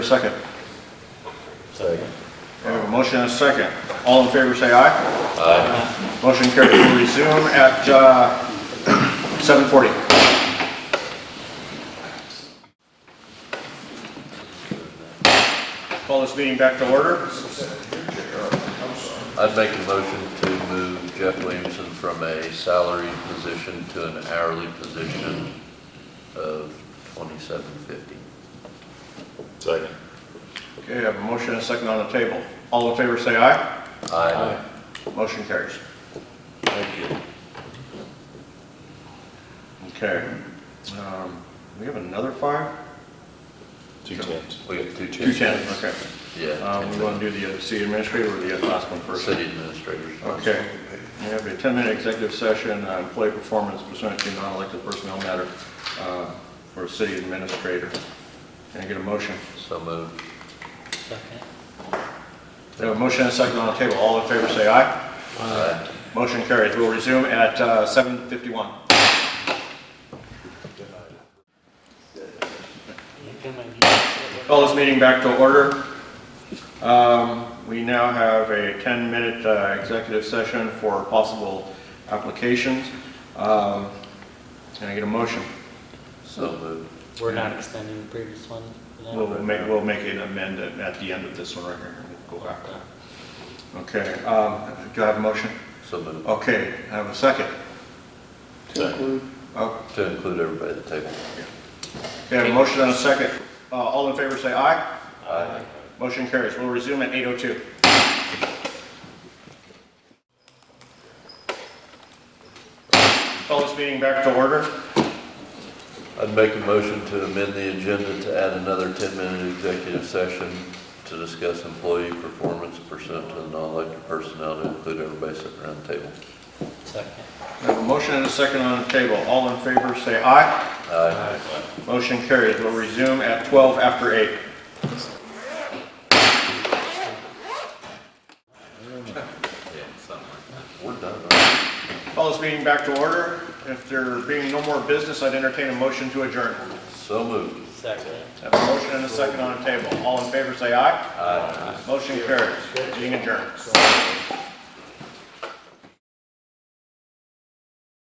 A Second. Second. We have a motion and a second. All in favor, say aye. Aye. Motion carried. We'll resume at uh, 7:40. Call this meeting back to order. I'd make a motion to move Jeff Williamson from a salaried position to an hourly position of twenty-seven fifty. Second. Okay, I have a motion and a second on the table. All in favor, say aye. Aye. Motion carries. Thank you. Okay. Um, We have another fire? Two tens. We have two Two changes. ten, okay. Yeah, Um, We want to do the uh, city administrator or the uh, last one for first? city administrators. Okay, we have a 10-minute executive session on employee performance pursuant to non-elected personnel matter uh, for city administrator. Can I get a motion? So moved. We have a motion and a second on the table. All in favor, say aye. Aye. Motion carries. We'll resume at uh, 7:51. Call this meeting back to order. Um, We now have a 10-minute uh, executive session for possible applications. Um, Can I get a motion? So moved. We're not extending the previous one? for that? We'll make, we'll make an amendment at the end of this one right here. We'll go back. Okay, um, do I have a motion? So moved. Okay, I have a second. Second. Oh, To include everybody at the table. Okay, I have a motion and a second. Uh, All in favor, say aye. Aye. Motion carries. We'll resume at 8:02. Call this meeting back to order. I'd make a motion to amend the agenda to add another ten-minute executive session to discuss employee performance pursuant to the non-elected personnel to include everybody sitting around the table. Second. I have a motion and a second on the table. All in favor, say aye. Aye. Motion carries. We'll resume at 12 after 8. Yeah, something like that. We're done. right? Call this meeting back to order. If there being no more business, I'd entertain a motion to adjourn. So moved. Second. Have a motion and a second on the table. All in favor, say aye. Aye. Motion carries. Being adjourned.